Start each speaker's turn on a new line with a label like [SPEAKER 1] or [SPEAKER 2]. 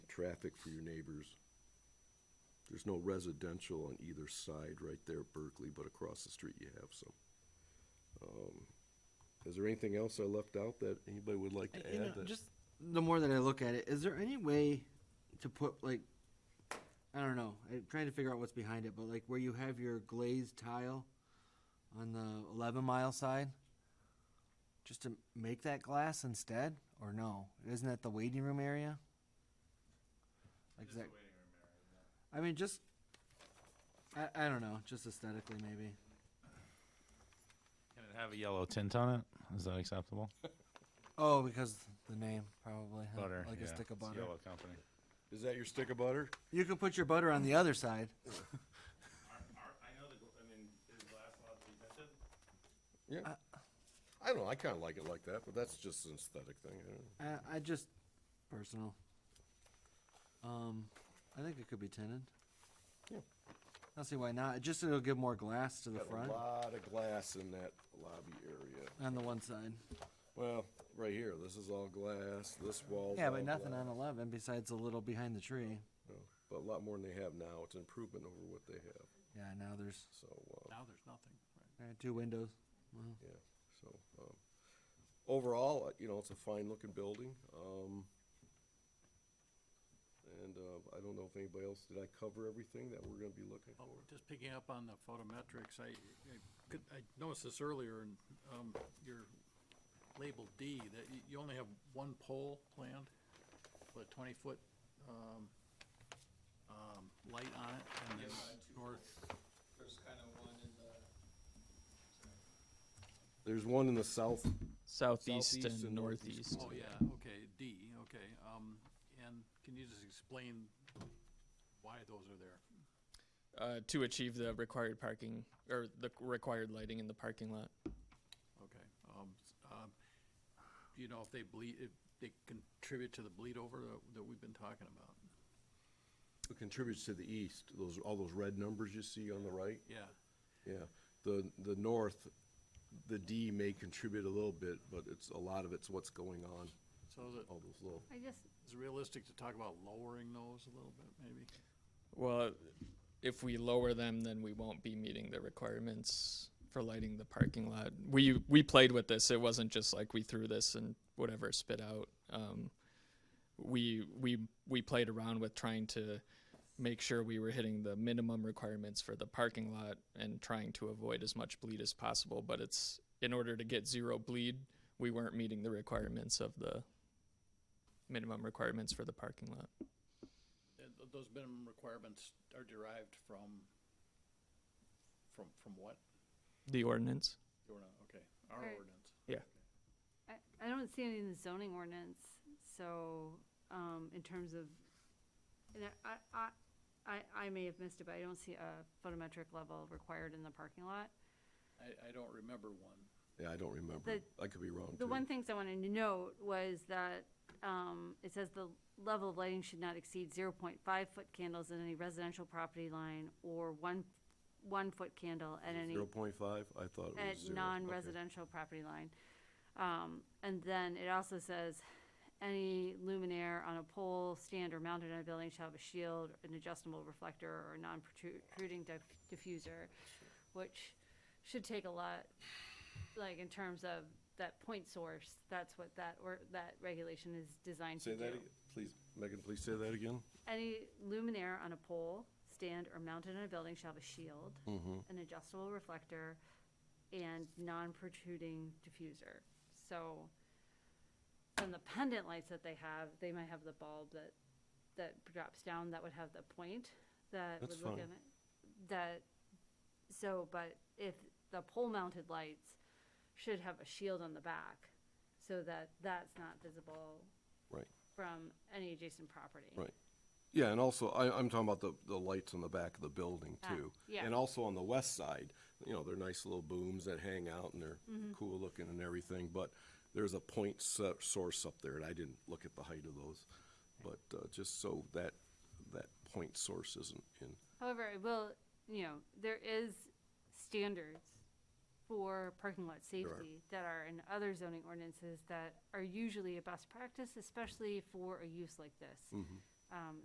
[SPEAKER 1] traffic for your neighbors. There's no residential on either side right there at Berkeley, but across the street you have some. Um, Is there anything else I left out that anybody would like to
[SPEAKER 2] You know,
[SPEAKER 1] add? that-
[SPEAKER 2] just the more that I look at it, is there any way to put like, I don't know, I'm trying to figure out what's behind it, but like where you have your glazed tile on the 11 mile side, just to make that glass instead, or no? Isn't that the waiting room area? Like is that, I mean, just I, I don't know, just aesthetically maybe.
[SPEAKER 3] Can it have a yellow tint on it? Is that acceptable?
[SPEAKER 2] Oh, because the name probably huh?
[SPEAKER 3] Butter.
[SPEAKER 2] like
[SPEAKER 3] yeah.
[SPEAKER 2] a stick of
[SPEAKER 3] It's
[SPEAKER 2] butter.
[SPEAKER 3] Yellow company.
[SPEAKER 1] Is that your stick of butter?
[SPEAKER 2] You can put your butter on the other side.
[SPEAKER 4] Are, are, I know the, gl- I mean, is glass allowed to be tinted?
[SPEAKER 1] Yeah.
[SPEAKER 2] Uh,
[SPEAKER 1] I don't know, I kinda like it like that, but that's just an aesthetic thing, I don't know.
[SPEAKER 2] I, I just personal. Um, I think it could be tinted.
[SPEAKER 1] Yeah.
[SPEAKER 2] I don't see why not. It Just it'll give more glass to the
[SPEAKER 1] Got
[SPEAKER 2] front
[SPEAKER 1] A lot of glass in that lobby area.
[SPEAKER 2] on the one side.
[SPEAKER 1] Well, right here, this is all glass, this wall.
[SPEAKER 2] Yeah, but nothing on eleven besides a little behind the tree.
[SPEAKER 1] But a lot more than they have now, it's an improvement over what they have,
[SPEAKER 2] Yeah, now there's
[SPEAKER 1] so, uh,
[SPEAKER 4] Now there's nothing, right?
[SPEAKER 2] uh, two windows. Well,
[SPEAKER 1] yeah, so, um, overall, uh, you know, it's a fine-looking building, um, and, uh, I don't know if anybody else, did I cover everything that we're gonna be looking for?
[SPEAKER 4] Oh, just picking up on the photometrics, I, I could, I noticed this earlier in, um, your label D, that you, you only have one pole planned with a twenty-foot, um, um, light on it and
[SPEAKER 5] Yeah,
[SPEAKER 4] then
[SPEAKER 5] I had two
[SPEAKER 4] north,
[SPEAKER 5] There's kind of one in the,
[SPEAKER 1] There's one in the south,
[SPEAKER 6] southeast
[SPEAKER 1] Southeast and
[SPEAKER 6] and
[SPEAKER 1] northeast.
[SPEAKER 6] northeast.
[SPEAKER 4] oh, yeah, okay, D, okay, um, and can you just explain why those are there?
[SPEAKER 6] Uh, to achieve the required parking, or the c- required lighting in the parking lot.
[SPEAKER 4] Okay, um, s- um, do you know if they bleed, if they contribute to the bleed over that- that we've been talking about?
[SPEAKER 1] it contributes to the east, those, all those red numbers you see on the right.
[SPEAKER 4] Yeah,
[SPEAKER 1] Yeah, the, the north, the D may contribute a little bit, but it's, a lot of it's what's going on,
[SPEAKER 4] so is it,
[SPEAKER 1] all those little.
[SPEAKER 7] I just,
[SPEAKER 4] is it realistic to talk about lowering those a little bit, maybe?
[SPEAKER 6] Well, if we lower them, then we won't be meeting the requirements for lighting the parking lot. We we played with this. It wasn't just like we threw this and whatever spit out. Um, we we we played around with trying to make sure we were hitting the minimum requirements for the parking lot and trying to avoid as much bleed as possible. But it's in order to get zero bleed, we weren't meeting the requirements of the minimum requirements for the parking lot.
[SPEAKER 4] And Uh, th- Those minimum requirements are derived from, from, from what?
[SPEAKER 6] The ordinance.
[SPEAKER 4] The ordinance, okay, our
[SPEAKER 7] Right.
[SPEAKER 4] ordinance.
[SPEAKER 7] I, I don't see any in the zoning ordinance, so, um, in terms of, and I- I, I, I, I may have missed it, but I don't see a photometric level required in the parking lot.
[SPEAKER 4] I, I don't remember one.
[SPEAKER 1] Yeah, I don't remember.
[SPEAKER 7] The-
[SPEAKER 1] I could be wrong
[SPEAKER 7] The one
[SPEAKER 1] too.
[SPEAKER 7] things I wanted to note was that, um, it says the level of lighting should not exceed zero point five foot candles in any residential property line or one, one foot candle at any
[SPEAKER 1] Zero point five, I thought it was
[SPEAKER 7] at
[SPEAKER 1] zero.
[SPEAKER 7] non-residential property line. Um, and then it also says, any luminaire on a pole, stand, or mounted on a building shall have a shield, an adjustable reflector, or non-protruding diffuser, which should take a lot, like, in terms of that point source, that's what that, or, that regulation is designed to
[SPEAKER 1] Say
[SPEAKER 7] do.
[SPEAKER 1] that, ag- please, Megan, please say that again.
[SPEAKER 7] Any luminaire on a pole, stand, or mounted on a building shall have a shield,
[SPEAKER 1] Mm-hmm.
[SPEAKER 7] an adjustable reflector, and non-protruding diffuser. So, on the pendant lights that they have, they might have the bulb that, that drops down, that would have the point, that would
[SPEAKER 1] That's
[SPEAKER 7] look
[SPEAKER 1] fine.
[SPEAKER 7] at it. That, so, but if the pole-mounted lights should have a shield on the back, so that that's not visible
[SPEAKER 1] Right,
[SPEAKER 7] from any adjacent property.
[SPEAKER 1] right. Yeah, and also, I, I'm talking about the, the lights on the back of the building
[SPEAKER 7] Ah,
[SPEAKER 1] too.
[SPEAKER 7] yeah.
[SPEAKER 1] And also on the west side, you know, they're nice little booms that hang out and they're
[SPEAKER 7] Mm-hmm.
[SPEAKER 1] cool looking and everything, but there's a point so- source up there and I didn't look at the height of those. But, uh, just so that, that point source isn't in.
[SPEAKER 7] However, I will, you know, there is standards for parking lot safety that are in other zoning ordinances that are usually a best practice, especially for a use like this. um,